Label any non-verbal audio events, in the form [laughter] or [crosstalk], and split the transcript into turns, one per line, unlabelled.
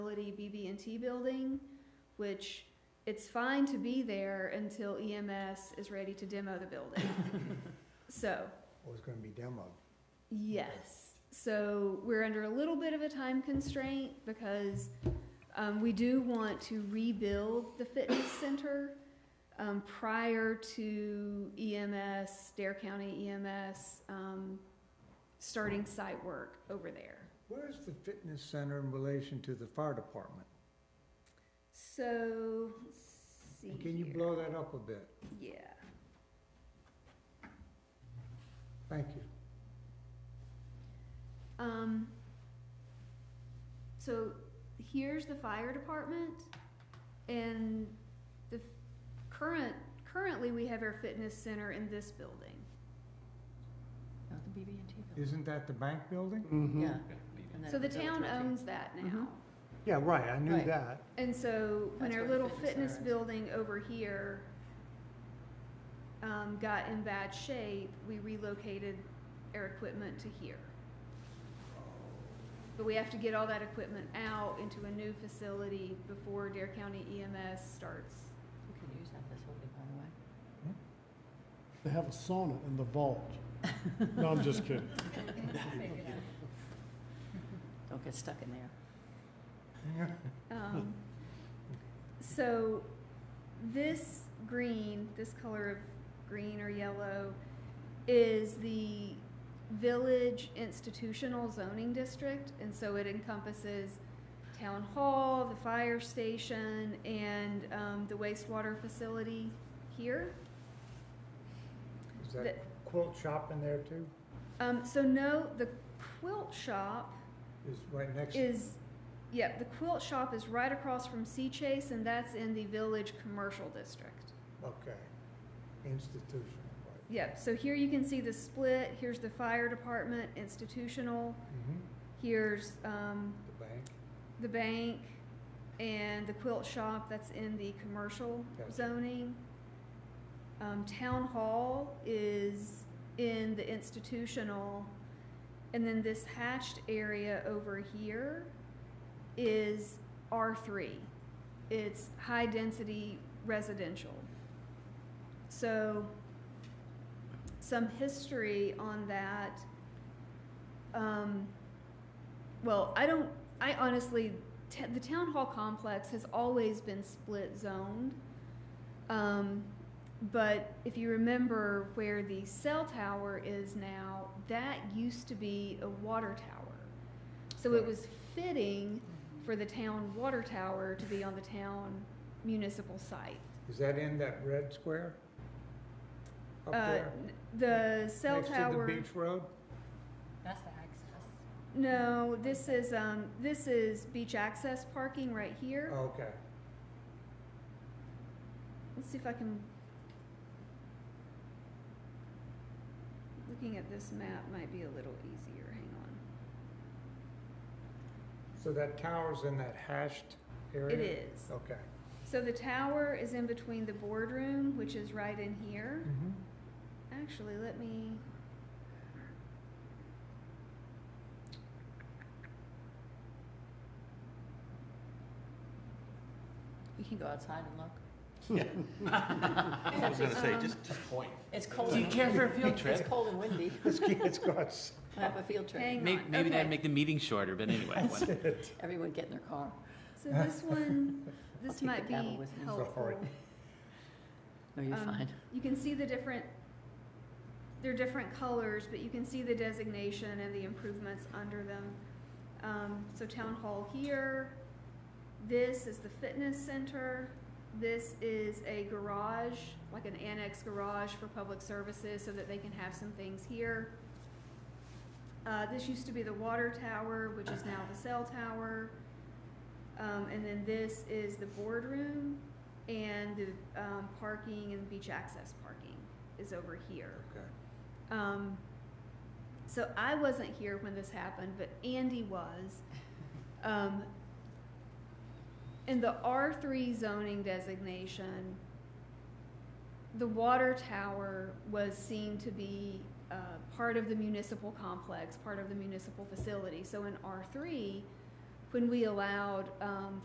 facility BB&T building, which it's fine to be there until EMS is ready to demo the building. So,
was gonna be demoed.
yes. So we're under a little bit of a time constraint because um, we do want to rebuild the fitness center um, prior to EMS, Dare County EMS, um, starting site work over there.
Where's the fitness center in relation to the fire department?
So, let's see
And Can you
here.
blow that up a bit?
Yeah.
Thank you.
Um, so here's the fire department and the f- current, currently we have our fitness center in this building.
Not the BB&T building.
Isn't that the bank building?
Mm-hmm.
Mm-hmm. Yeah. and
So
then
the
it goes
town
right to-
owns that now.
Mhm.
Yeah, right, I
knew Right.
that.
And so when our
That's where the
little
fitness
fitness
center is.
building over here um, got in bad shape, we relocated our equipment to here. But we have to get all that equipment out into a new facility before Dare County EMS starts.
We could use that facility, by the way.
They have a sauna in the vault. No, I'm just kidding.
Don't get stuck in there.
Um, so this green, this color of green or yellow, is the village institutional zoning district, and so it encompasses town hall, the fire station, and um, the wastewater facility here.
[laughs] Is
The-
that quilt shop in there too?
Um, so no, the quilt shop
Is right next,
is, yeah, the quilt shop is right across from Sea Chase, and that's in the village commercial district.
okay. Institution, right.
Yep, so here you can see the split, here's the fire department, institutional,
Mm-hmm.
here's, um,
The bank,
the bank, and the quilt shop that's in the commercial
Gotcha.
zoning. Um, town hall is in the institutional, and then this hatched area over here is R three. It's high-density residential. So, some history on that. Um, well, I don't, I honestly, t- the town hall complex has always been split zoned. Um, but if you remember where the cell tower is now, that used to be a water tower. So it was fitting for the town water tower to be on the town municipal site.
is that in that red square? Up
Uh,
there?
n- The cell tower.
Next to the beach road?
That's the access.
No, this is, um, this is beach access parking right here.
Okay.
Let's see if I can. Looking at this map might be a little easier, hang on.
So that tower's in that hashed area?
It is.
Okay.
So the tower is in between the boardroom, which is right in here.
Mm-hmm.
Actually, let me.
You can go outside and [laughs] look.
I was gonna say,
Um,
just, just point.
[laughs] It's cold.
Do you
and
care
windy.
for a field
It's
trip?
cold and windy.
Let's get, let's go outside.
I have a field trip.
Hang
May-
on,
Maybe
okay.
that'd make the meeting shorter, but anyway.
That's it.
Everyone get in their car.
So this one, this
take
might
the gavel
be
with me.
helpful.
Sorry.
No, Oh, you're
Um,
fine.
You can see the different, they're different colors, but you can see the designation and the improvements under them. Um, so town hall here, this is the fitness center, this is a garage, like an annex garage for public services so that they can have some things here. Uh, this used to be the water tower, which is now the cell tower. Um, and then this is the boardroom, and the um, parking and beach access parking is over here.
Okay.
Um, so I wasn't here when this happened, but Andy was. Um, in the R3 zoning designation, the water tower was seen to be uh, part of the municipal complex, part of the municipal facility. So in R3, when we allowed, um,